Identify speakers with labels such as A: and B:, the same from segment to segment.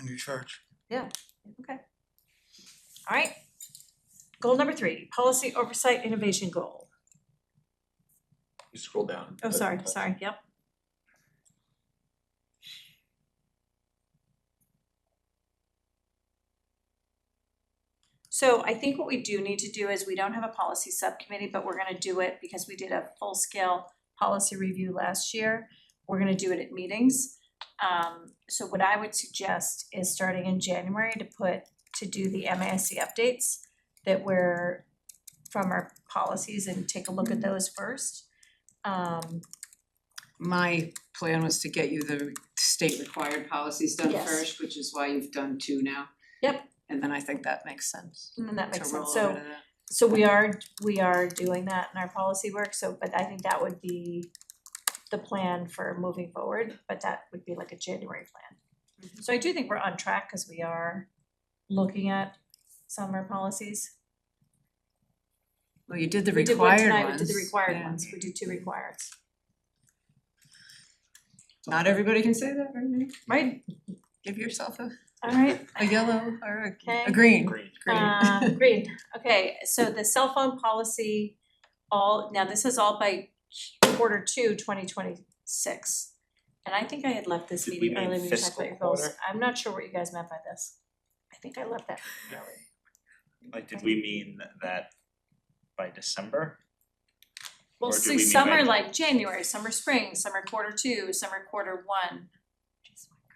A: in your charge.
B: Okay. Alright. Goal number three, policy oversight innovation goal.
C: You scroll down.
B: Oh, sorry, sorry, yep. So I think what we do need to do is we don't have a policy subcommittee, but we're gonna do it because we did a full-scale policy review last year. We're gonna do it at meetings. Um so what I would suggest is starting in January to put to do the MASC updates that were from our policies and take a look at those first. Um
D: My plan was to get you the state required policies done
B: Yes.
D: first, which is why you've done two now.
B: Yep.
D: And then I think that makes sense
B: and then Mm, that
D: to
B: makes sense.
D: roll
B: So
D: over to that.
B: So we are, we are doing that in our policy work, so, but I think that would be the plan for moving forward, but that would be like a January plan.
D: Mm-hmm.
B: So I do think we're on track, cause we are looking at some of our policies.
D: Well, you did the
B: We did one
D: required
B: tonight, we
D: ones.
B: did the required
D: yeah.
B: ones, we did two
D: Mm-hmm.
B: requireds,
D: Not everybody can say that, right now.
B: right?
D: Give yourself a
B: Alright.
D: a yellow or a-
B: Okay.
D: a green,
C: Green.
D: green.
B: Uh, green, okay, so the cell phone policy, all, now this is all by quarter two, twenty twenty six. And I think I had left this
C: Did we
B: meeting
C: mean
B: early when you talked about
C: fiscal
B: your goals,
C: quarter?
B: I'm not sure what you guys meant by this. I think I left that meeting early.
C: Like, did we mean that by December?
B: Well,
C: Or do
B: see,
C: we mean
B: some
C: by-
B: are like January, some are spring, some are quarter two, some are quarter one.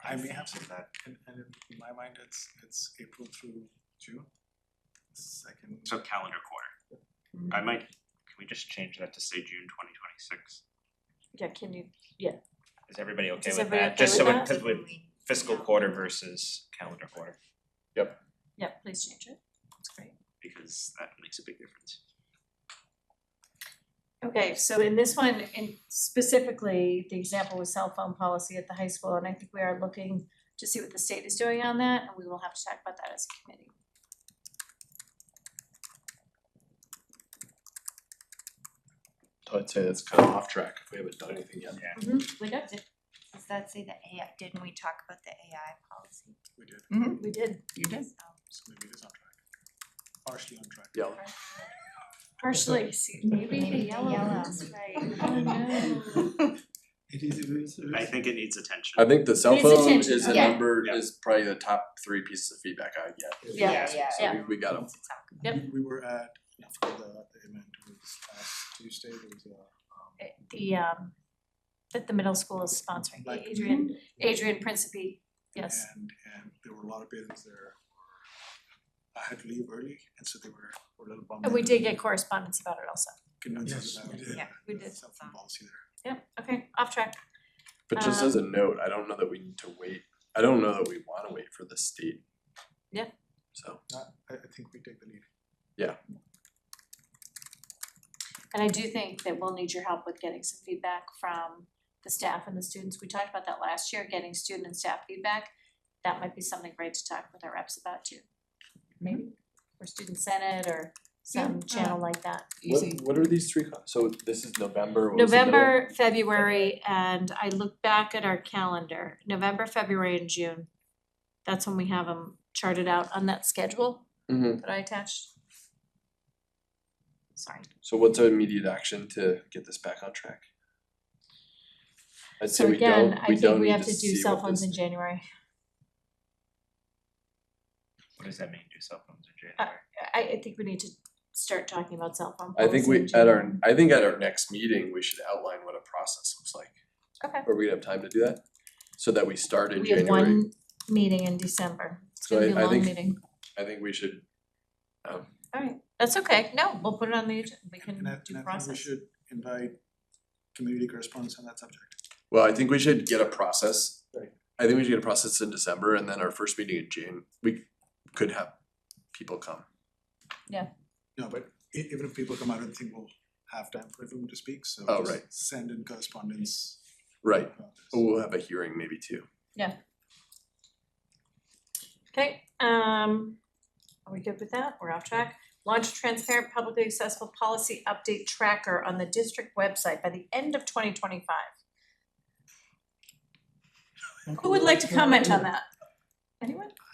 A: I may have said that, and and in my mind, it's it's April through June. Second.
C: So calendar quarter. I might, can we just change that to say June twenty twenty six?
B: Yeah, can you,
C: Is everybody okay
B: Is
C: with
B: everybody
C: that?
B: okay
C: Just so
B: with
C: it,
B: that?
C: cause with fiscal
B: Yeah.
C: quarter versus calendar quarter,
B: yeah, please change it, that's great.
C: because that makes a big difference.
B: Okay, so in this one, in specifically, the example was cell phone policy at the high school, and I think we are looking to see what the state is doing on that, and we will have to talk about that as a committee.
E: I'd say that's kind of off track if we haven't done anything yet.
B: We got it.
F: Does that say the AI, didn't we talk about the AI policy?
A: We did,
B: We did.
D: You did.
A: so maybe it is on track. Partially on track.
E: Yeah.
B: Partially, see, maybe the yellow
F: Yellow.
B: ones, right? Oh, no.
A: It is, it is, it is.
C: I think it needs attention.
E: I think the cell
B: Needs
E: phone
B: attention,
E: is a
F: yeah.
E: number,
C: Yeah.
E: is probably the top three pieces of feedback I get.
B: Yeah.
F: Yeah,
E: So
B: yeah.
E: we- we got 'em.
B: Yep.
A: We- We were at, after the the event was last Tuesday, there was a um
B: The um, that the middle school is sponsoring,
A: Like-
B: Adrian, Adrian Principi, yes.
A: And and there were a lot of parents there. I had to leave early and so they were were a little bummed.
B: And Oh, we
A: that
B: did get correspondence about it also.
A: Condolences
E: Yes,
A: about
E: we
A: the-
F: Yeah,
B: we
A: the
B: did.
A: cell phone policy there.
B: Yep, okay, off track.
E: But just
B: Um,
E: as a note, I don't know that we need to wait, I don't know that we wanna wait for the state.
B: Yeah.
E: So,
A: Not- I I think we take the lead.
B: And I do think that we'll need your help with getting some feedback from the staff and the students. We talked about that last year, getting student and staff feedback. That might be something great to talk with our reps about too. Maybe. Or student senate or some
D: Yeah,
B: channel like that.
E: what,
D: Easy.
E: what are these three, con- so this is November, what was the middle?
B: November, February, and I look back at our calendar, November, February and June. That's when we have them charted out on that schedule
E: Mhm.
B: that I attached. Sorry.
E: So what's our immediate action to get this back on track? I'd say
B: So
E: we don't,
B: again, I
E: we
B: think
E: don't
B: we
E: need
B: have
E: to
B: to do
E: see
B: cell
E: what
B: phones in
E: this,
B: January.
C: What does that mean, do cell phones in
B: Uh,
C: January?
B: I I think we need to start talking about cell phone
E: I think
B: policy
E: we,
B: in
E: at our,
B: general.
E: I think at our next meeting, we should outline what a process looks like.
B: Okay.
E: Are we gonna have time to do that? So that we start in
B: We have
E: January,
B: one meeting in December, it's
E: So
B: gonna be a
E: I- I
B: long
E: think-
B: meeting,
E: I think we should, um,
B: alright, that's okay, no, we'll put it on the, ag- we can
A: And I
B: do
A: and I think we
B: process.
A: should invite community correspondence on that subject.
E: well, I think we should get a process.
A: Right.
E: I think we should get a process in December and then our first meeting in June, we could have people come.
A: No, but e- even if people come out and think we'll have time for everyone to speak, so
E: Oh,
A: just
E: right.
A: send in correspondence.
E: Right,
A: about this.
E: Or we'll have a hearing maybe too.
B: Okay, um, are we good with that, we're off track, launch a transparent publicly accessible policy update tracker on the district website by the end of twenty twenty five. Who would like to comment on that? Anyone?